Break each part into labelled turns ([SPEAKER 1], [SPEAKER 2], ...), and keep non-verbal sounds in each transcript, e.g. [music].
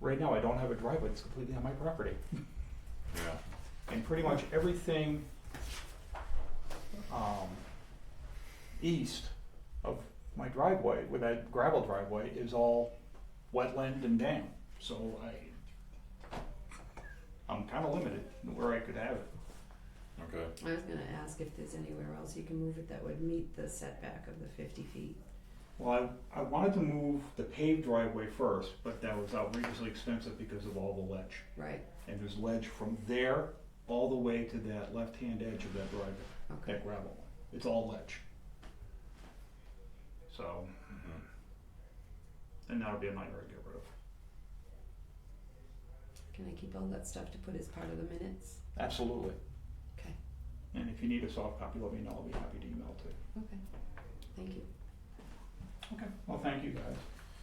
[SPEAKER 1] right now, I don't have a driveway, it's completely on my property.
[SPEAKER 2] yeah.
[SPEAKER 1] And pretty much everything, um, east of my driveway, with that gravel driveway, is all wetland and dam, so I, I'm kinda limited in where I could have it.
[SPEAKER 2] Okay,
[SPEAKER 3] I was gonna ask if there's anywhere else you can move it that would meet the setback of the fifty feet.
[SPEAKER 1] Well, I, I wanted to move the paved driveway first, but that was outrageously expensive because of all the ledge.
[SPEAKER 3] Right,
[SPEAKER 1] And there's ledge from there all the way to that left-hand edge of that driveway,
[SPEAKER 3] okay.
[SPEAKER 1] that gravel. It's all ledge. So, and that'll be a nightmare to get rid of.
[SPEAKER 3] Can I keep all that stuff to put as part of the minutes?
[SPEAKER 1] Absolutely.
[SPEAKER 3] Okay,
[SPEAKER 1] And if you need a soft copy, let me know. I'll be happy to email it to you.
[SPEAKER 3] okay. Thank you.
[SPEAKER 1] Okay. Well, thank you guys.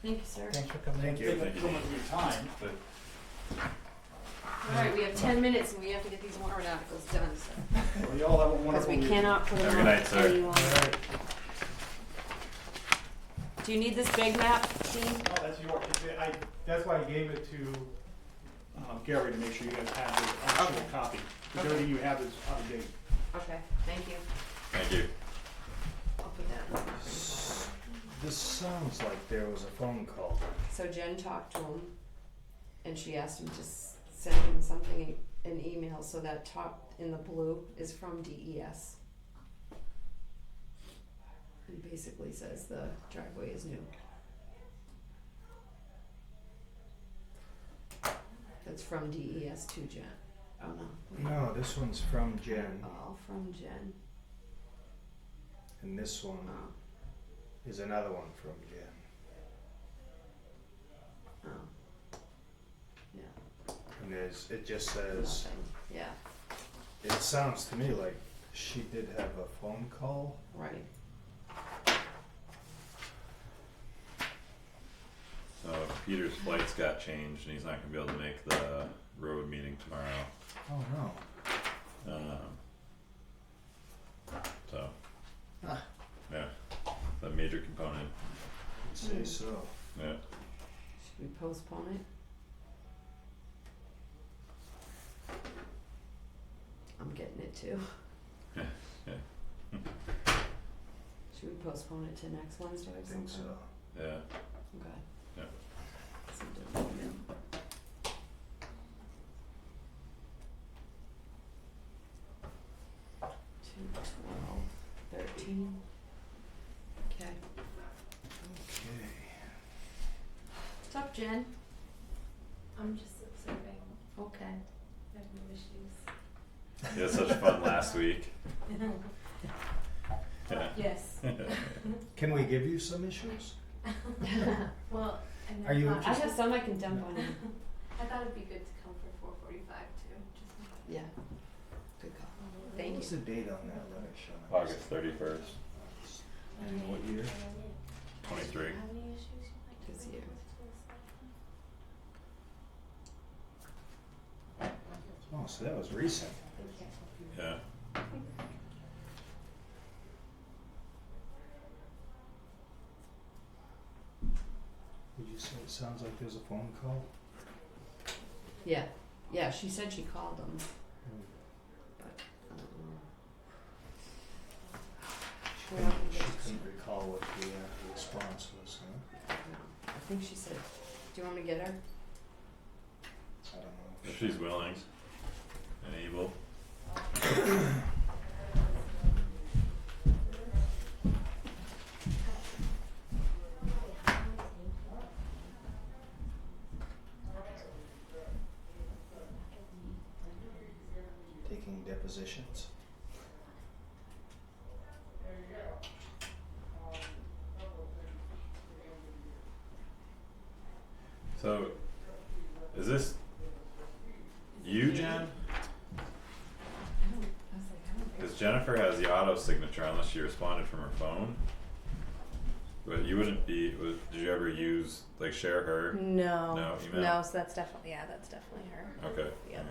[SPEAKER 3] Thank you, sir.
[SPEAKER 4] Thanks for coming in.
[SPEAKER 1] Thank you so much for your time, but
[SPEAKER 3] All right, we have ten minutes and we have to get these warrant articles done, so.
[SPEAKER 1] we all have a
[SPEAKER 3] Because
[SPEAKER 1] wonderful
[SPEAKER 3] we
[SPEAKER 1] weekend.
[SPEAKER 3] cannot put
[SPEAKER 2] Have a
[SPEAKER 3] them
[SPEAKER 2] good
[SPEAKER 3] on
[SPEAKER 2] night, sir.
[SPEAKER 3] any longer.
[SPEAKER 4] All right.
[SPEAKER 3] Do you need this big map, Dean?
[SPEAKER 1] No, that's your, it's- I, that's why I gave it to um, Gary to make sure you guys have the actual copy. Because
[SPEAKER 3] Okay.
[SPEAKER 1] everything you have is out of date.
[SPEAKER 3] Okay, thank you.
[SPEAKER 2] thank you.
[SPEAKER 3] I'll put that in the property folder.
[SPEAKER 4] This sounds like there was a phone call.
[SPEAKER 3] So Jen talked to him and she asked him to s- send him something, an email, so that top in the blue is from E DES. And basically says the driveway is new. That's from DES to Jen. Oh no.
[SPEAKER 4] No, this one's from Jen,
[SPEAKER 3] All from Jen.
[SPEAKER 4] and this one
[SPEAKER 3] Oh,
[SPEAKER 4] is another one from Jen,
[SPEAKER 3] oh. Yeah.
[SPEAKER 4] and there's it just says.
[SPEAKER 3] Nothing. Yeah,
[SPEAKER 4] It sounds to me like she did have a phone call.
[SPEAKER 3] right.
[SPEAKER 2] So Peter's flights got changed and he's not gonna be able to make the road meeting tomorrow,
[SPEAKER 4] Oh no.
[SPEAKER 2] um. So.
[SPEAKER 4] Ah.
[SPEAKER 2] Yeah, the major component,
[SPEAKER 4] Say so.
[SPEAKER 2] yeah,
[SPEAKER 3] Should we postpone it? I'm getting it too.
[SPEAKER 2] Yeah.
[SPEAKER 3] [laughs] Should we postpone it to next Wednesday
[SPEAKER 4] I
[SPEAKER 3] or
[SPEAKER 4] think so.
[SPEAKER 3] something?
[SPEAKER 2] yeah,
[SPEAKER 3] Okay.
[SPEAKER 2] Yeah.
[SPEAKER 3] Some different, yeah. Two, twelve, thirteen. Okay.
[SPEAKER 4] Okay.
[SPEAKER 3] What's up, Jen?
[SPEAKER 5] I'm just observing.
[SPEAKER 3] Okay.
[SPEAKER 5] I have no issues.
[SPEAKER 2] he had such fun last week, yeah.
[SPEAKER 5] yes.
[SPEAKER 4] Can we give you some issues?
[SPEAKER 5] Well, and
[SPEAKER 4] Are you
[SPEAKER 3] [laughs]
[SPEAKER 5] I,
[SPEAKER 3] I
[SPEAKER 5] thought-
[SPEAKER 3] have some I can dump on you.
[SPEAKER 5] I thought it'd be good to come for 4:45 too. Just in case.
[SPEAKER 3] Yeah. Good call.
[SPEAKER 4] What
[SPEAKER 3] Thank
[SPEAKER 4] was
[SPEAKER 3] you.
[SPEAKER 4] the date on that letter, Sean?
[SPEAKER 2] [laughs] August thirty-first,
[SPEAKER 4] And what year?
[SPEAKER 2] twenty-three,
[SPEAKER 5] How many issues you like to
[SPEAKER 3] This
[SPEAKER 5] make
[SPEAKER 3] year.
[SPEAKER 5] with
[SPEAKER 4] Oh, so that was recent.
[SPEAKER 5] this? Okay.
[SPEAKER 2] yeah,
[SPEAKER 4] Would you say it sounds like there's a phone call?
[SPEAKER 3] Yeah, yeah, she said she called them,
[SPEAKER 4] Hmm.
[SPEAKER 3] but I don't know.
[SPEAKER 4] She
[SPEAKER 3] Well,
[SPEAKER 4] couldn't, she
[SPEAKER 3] that's-
[SPEAKER 4] couldn't recall what the uh, response was, huh?
[SPEAKER 3] I think she said, do you want me to get her?
[SPEAKER 4] I don't know.
[SPEAKER 2] if she's willing and able,
[SPEAKER 4] Taking depositions.
[SPEAKER 2] so, is this you, Jen?
[SPEAKER 3] I don't, I was like, I don't think.
[SPEAKER 2] Cause Jennifer has the auto signature unless she responded from her phone. But you wouldn't be, was, did you ever use, like share her?
[SPEAKER 6] No.
[SPEAKER 2] No, email?
[SPEAKER 6] No, so that's definitely yeah, that's definitely her.
[SPEAKER 2] Okay.
[SPEAKER 6] Yeah.
[SPEAKER 2] okay.